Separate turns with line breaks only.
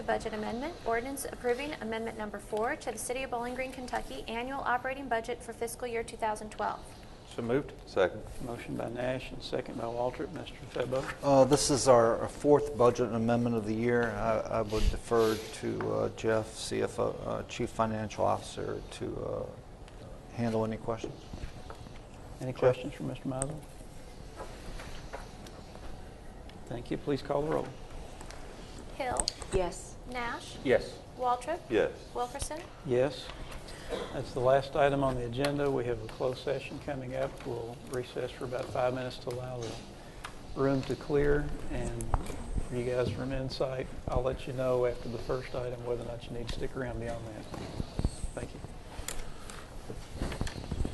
Budget Amendment, ordinance approving Amendment Number Four to the City of Bowling Green, Kentucky Annual Operating Budget for Fiscal Year 2012.
So moved.
Second.
Motion by Nash and second by Waltrip. Mr. Febo.
Uh, This is our fourth budget amendment of the year. I I would defer to uh, Jeff, CFO, uh, Chief Financial Officer, to uh, handle any questions.
Any questions for Mr. Mizel? Thank you. Please call the roll.
Hill,
yes,
Nash,
Yes.
Waltrip,
Yes.
Wilkerson,
Yes. That's the last item on the agenda. We have a closed session coming up. We'll recess for about five minutes to allow the room to clear. And for you guys from Insight, I'll let you know after the first item whether or not you need to stick around beyond that. Thank you.